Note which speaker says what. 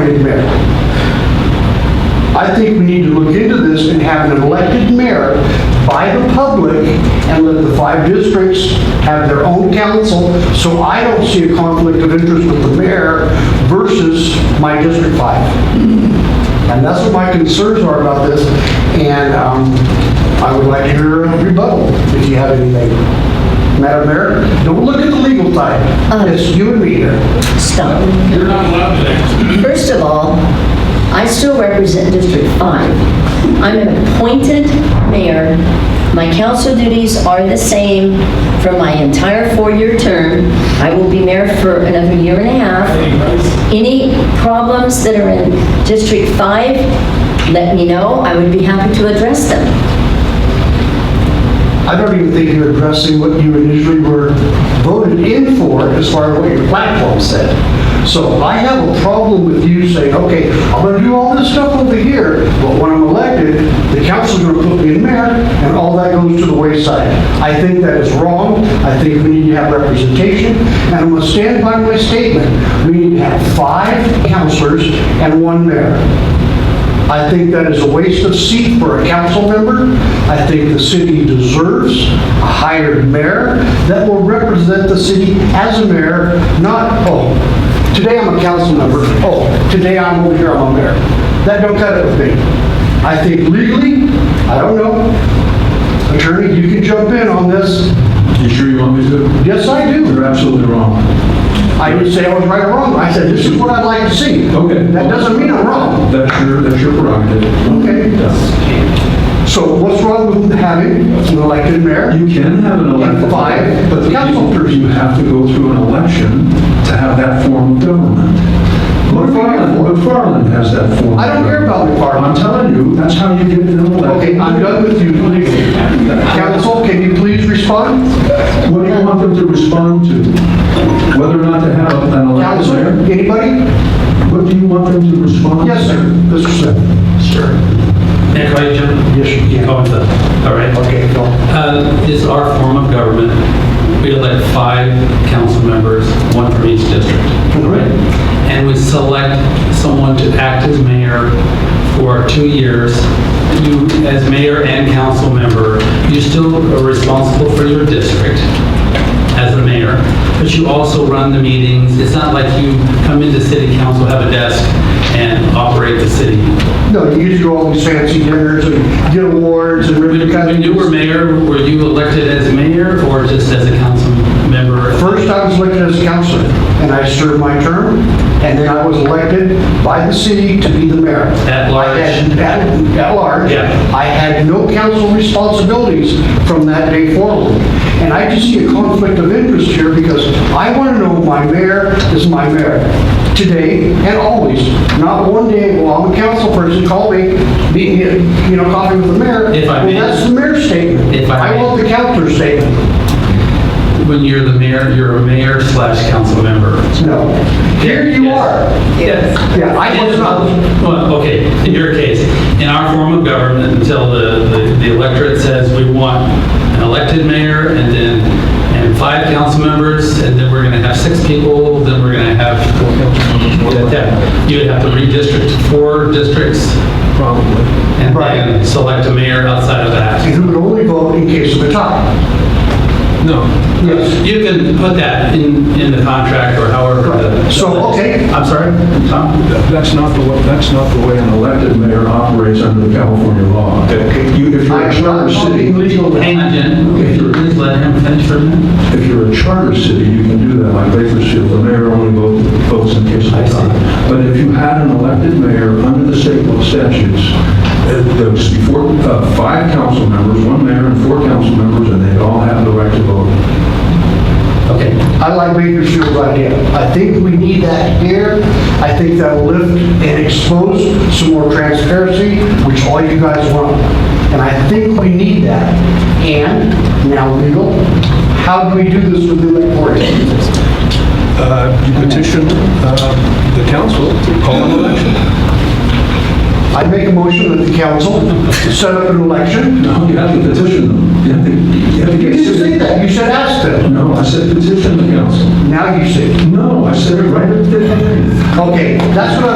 Speaker 1: okay. I think we need to look into this and have an elected mayor by the public and let the five districts have their own council, so I don't see a conflict of interest with the mayor versus my District 5. And that's what my concerns are about this, and um, I would like to hear a rebuttal if you have anything. Madam Mayor, don't look at the legal type. It's you and me here.
Speaker 2: Stop.
Speaker 3: You're not allowed to ask.
Speaker 2: First of all, I still represent District 5. I'm an appointed mayor. My council duties are the same for my entire four-year term. I will be mayor for another year and a half. Any problems that are in District 5, let me know. I would be happy to address them.
Speaker 1: I don't even think you're addressing what you initially were voted in for as far as what your platform said. So I have a problem with you saying, okay, I'm gonna do all this stuff over here, but when I'm elected, the council's gonna put me in mayor, and all that goes to the wayside. I think that is wrong, I think we need to have representation, and I'm gonna stand by my statement. We need to have five councilors and one mayor. I think that is a waste of seat for a council member. I think the city deserves a hired mayor that will represent the city as a mayor, not, oh, today I'm a council member, oh, today I'm over here, I'm a mayor. That don't cut it with me. I think legally, I don't know, attorney, you can jump in on this.
Speaker 4: You sure you want me to?
Speaker 1: Yes, I do.
Speaker 4: You're absolutely wrong.
Speaker 1: I didn't say I was right or wrong. I said, this is what I'd like to see.
Speaker 4: Okay.
Speaker 1: That doesn't mean I'm wrong.
Speaker 4: That's your, that's your prerogative.
Speaker 1: Okay. So what's wrong with having an elected mayor?
Speaker 4: You can have an elected.
Speaker 1: Five, but the council-
Speaker 4: You- You have to go through an election to have that form of government. McFarland, McFarland has that form. of
Speaker 1: I don't care about
Speaker 4: government.
Speaker 1: McFarland.
Speaker 4: I'm telling you, that's how you get an election.
Speaker 1: Okay, I'm done with you legally. Council, can you please respond?
Speaker 4: What do you want them to respond to? Whether or not to have an
Speaker 1: Council,
Speaker 4: election there?
Speaker 1: anybody?
Speaker 4: What do you want them to respond to?
Speaker 1: Yes, sir. Mr. Smith. Sir.
Speaker 5: Nick, right, Jim?
Speaker 1: Yes, you can.
Speaker 5: Oh, it's a- all right.
Speaker 1: Okay, go.
Speaker 5: Uh, Is our form of government, we elect five council members, one from each district, right? And we select someone to act as mayor for two years. You, as mayor and council member, you still are responsible for your district as a mayor, but you also run the meetings. It's not like you come into city council, have a desk, and operate the city.
Speaker 1: No, you used to do all these fancy dinners and get awards and ribbon
Speaker 5: When
Speaker 1: cutting.
Speaker 5: when you were mayor, were you elected as mayor or just as a council member?
Speaker 1: First, I was elected as a councilor, and I served my term, and then I was elected by the city to be the mayor.
Speaker 5: At large.
Speaker 1: At, at- at large.
Speaker 5: Yeah.
Speaker 1: I had no council responsibilities from that day forward. And I just see a conflict of interest here because I want to know my mayor is my mayor today and always. Not one day, well, I'm a council person, call me, meet, me, you know, coffee with the mayor.
Speaker 5: If I may.
Speaker 1: Well, that's the mayor's statement.
Speaker 5: If I
Speaker 1: I
Speaker 5: may.
Speaker 1: want the councilor's statement.
Speaker 5: When you're the mayor, you're a mayor slash council member.
Speaker 1: No. Here you
Speaker 5: Yes.
Speaker 1: are.
Speaker 5: Yes.
Speaker 1: Yeah, I was not,
Speaker 5: Well, okay, in your case, in our form of government, until the, the- the electorate says we want an elected mayor and then, and five council members, and then we're gonna have six people, then we're gonna have, Yeah, you'd have to redistrict four districts
Speaker 4: Probably.
Speaker 5: and
Speaker 1: Right.
Speaker 5: then select a mayor outside of that.
Speaker 1: and who would only vote in case of a tie.
Speaker 5: No.
Speaker 1: Yes.
Speaker 5: You can put that in, in the contract or however. the-
Speaker 1: So, okay.
Speaker 5: I'm sorry, Tom?
Speaker 4: That- That's not the, wa- that's not the way an elected mayor operates under the California law. You- If you're a
Speaker 1: I'm not
Speaker 4: charter
Speaker 1: talking
Speaker 4: city,
Speaker 1: legal.
Speaker 5: Hang on, Jen. Okay, so please let him finish for a minute.
Speaker 4: if you're a charter city, you can do that, like Bakersfield, the mayor only vote- votes in case of
Speaker 5: I see.
Speaker 4: tie. But if you had an elected mayor under the state law statutes, uh, there was four, uh, five council members, one mayor and four council members, and they'd all have the right to vote.
Speaker 5: Okay.
Speaker 1: I like Bakersfield's idea. I think we need that here. I think that'll lift and expose some more transparency, which all you guys want. And I think we need that. And now legal, how do we do this with the electorate?
Speaker 6: Uh, you petition uh, the council to call an election.
Speaker 1: I make a motion that the council set up an election.
Speaker 4: No, you have to petition them. You have to- You have to
Speaker 1: You
Speaker 4: get...
Speaker 1: didn't say that. You said ask them.
Speaker 4: No, I said petition the council.
Speaker 1: Now you say.
Speaker 4: No, I said it right at the beginning.
Speaker 1: Okay, that's what I